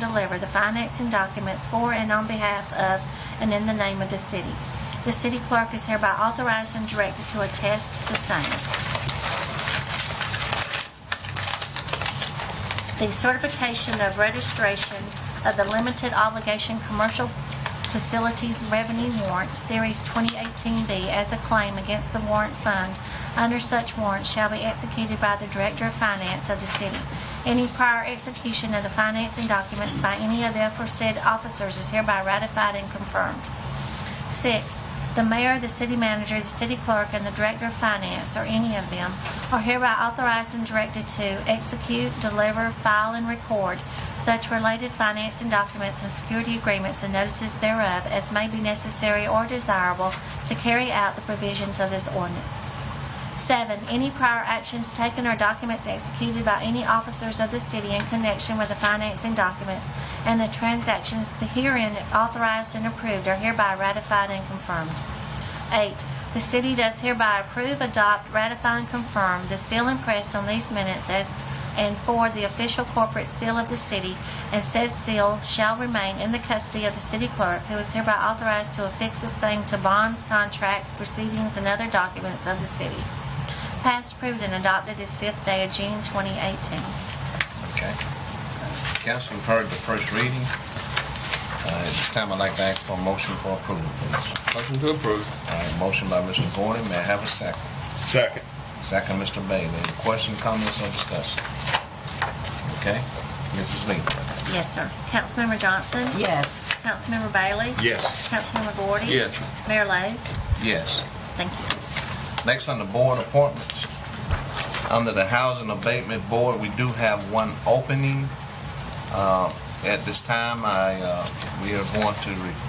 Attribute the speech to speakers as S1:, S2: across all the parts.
S1: deliver the financing documents for and on behalf of and in the name of the city. The city clerk is hereby authorized and directed to attest the same. the certification of registration of the limited obligation commercial facilities revenue warrant, Series 2018B, as a claim against the warrant fund under such warrant shall be executed by the Director of Finance of the city. Any prior execution of the financing documents by any of the aforesaid officers is hereby ratified and confirmed. Six, the mayor, the city manager, the city clerk, and the director of finance, or any of them, are hereby authorized and directed to execute, deliver, file, and record such related financing documents and security agreements and notices thereof as may be necessary or desirable to carry out the provisions of this ordinance. Seven, any prior actions taken or documents executed by any officers of the city in connection with the financing documents and the transactions herein authorized and approved are hereby ratified and confirmed. Eight, the city does hereby approve, adopt, ratify, and confirm the seal impressed on these minutes as and for the official corporate seal of the city, and said seal shall remain in the custody of the city clerk, who is hereby authorized to affix the same to bonds, contracts, proceedings, and other documents of the city. Passed, approved, and adopted this fifth day of June 2018.
S2: Okay. Council, we've heard the first reading. Uh, At this time, I'd like to ask for a motion for approval, please.
S3: Motion to approve.
S2: All right, motion by Mr. Gordon, may I have a second?
S3: Second.
S2: Second, Mr. Bailey. Any question, comments, or discussion? Okay, Mrs. Lee.
S1: Yes, sir. Councilmember Johnson?
S4: Yes.
S1: Councilmember Bailey?
S3: Yes.
S1: Councilmember Gordy?
S3: Yes.
S1: Mayor Lo?
S2: Yes.
S1: Thank you.
S2: Next on the board appointments, under the Housing Abatement Board, we do have one opening. Uh, At this time, I, uh, we are going to re-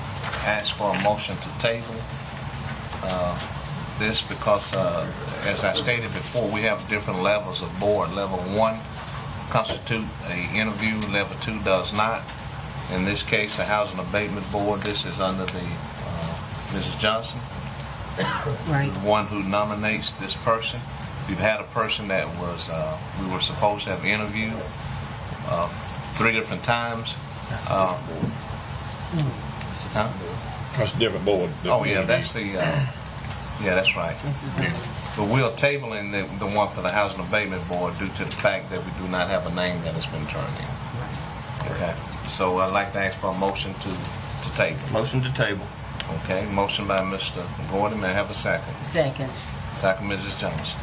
S2: ask for a motion to table uh, this because, uh, as I stated before, we have different levels of board. Level one constitute a interview, level two does not. In this case, the Housing Abatement Board, this is under the, uh, Mrs. Johnson
S4: Right.
S2: the one who nominates this person. We've had a person that was, uh, we were supposed to have interviewed uh, three different times. Uh, huh?
S3: That's a different board.
S2: Oh, yeah, that's the, uh, yeah, that's right.
S4: Mrs. Owen.
S2: But we're tabling the, the one for the Housing Abatement Board due to the fact that we do not have a name that has been turned in. Okay, so I'd like to ask for a motion to, to table.
S3: Motion to table.
S2: Okay, motion by Mr. Gordon, may I have a second?
S4: Second.
S2: Second, Mrs. Johnson.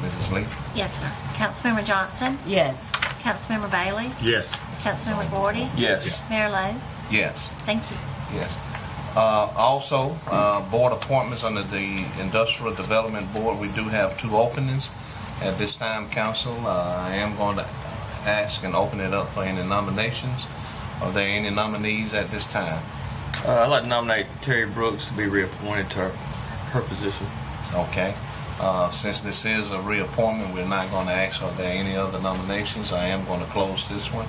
S2: Mrs. Lee?
S1: Yes, sir. Councilmember Johnson?
S4: Yes.
S1: Councilmember Bailey?
S3: Yes.
S1: Councilmember Gordy?
S3: Yes.
S1: Mayor Lo?
S2: Yes.
S1: Thank you.
S2: Yes. Uh, Also, uh, board appointments under the Industrial Development Board, we do have two openings. At this time, council, uh, I am going to ask and open it up for any nominations. Are there any nominees at this time?
S5: Uh, I'd like to nominate Terry Brooks to be reappointed to her, her position.
S2: Okay. Uh, Since this is a reappointment, we're not going to ask, are there any other nominations? I am going to close this one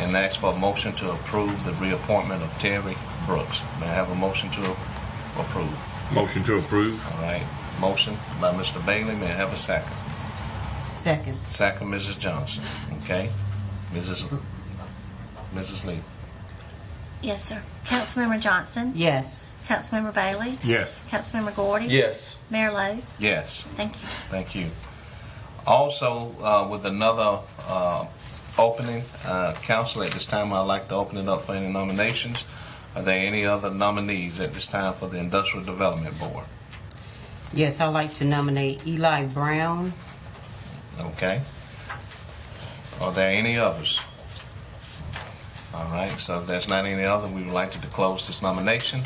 S2: and ask for a motion to approve the reappointment of Terry Brooks. May I have a motion to approve?
S3: Motion to approve.
S2: All right, motion by Mr. Bailey, may I have a second?
S4: Second.
S2: Second, Mrs. Johnson, okay? Mrs. Mrs. Lee,
S1: Yes, sir. Councilmember Johnson?
S4: Yes.
S1: Councilmember Bailey?
S3: Yes.
S1: Councilmember Gordy?
S5: Yes.
S1: Mayor Lo?
S2: yes,
S1: Thank you.
S2: thank you. Also, uh, with another uh, opening, uh, council, at this time, I'd like to open it up for any nominations. Are there any other nominees at this time for the Industrial Development Board?
S4: Yes, I'd like to nominate Eli Brown.
S2: Okay. Are there any others? All right, so if there's not any other, we would like to close this nomination.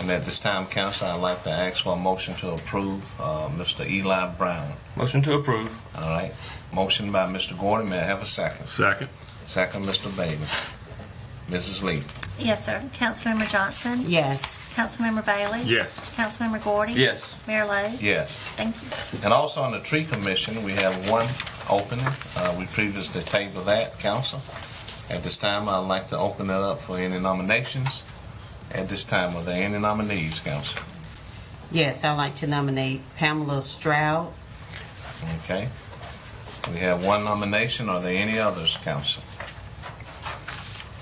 S2: And at this time, council, I'd like to ask for a motion to approve uh, Mr. Eli Brown.
S5: Motion to approve.
S2: All right, motion by Mr. Gordon, may I have a second?
S3: Second.
S2: Second, Mr. Bailey. Mrs. Lee?
S1: Yes, sir. Councilmember Johnson?
S4: Yes.
S1: Councilmember Bailey?
S3: Yes.
S1: Councilmember Gordy?
S5: Yes.
S1: Mayor Lo?
S2: Yes.
S1: Thank you.
S2: And also on the tree commission, we have one opening. Uh, we previously tabled that, council. At this time, I'd like to open it up for any nominations. At this time, are there any nominees, council?
S4: Yes, I'd like to nominate Pamela Stroud.
S2: Okay. We have one nomination. Are there any others, council?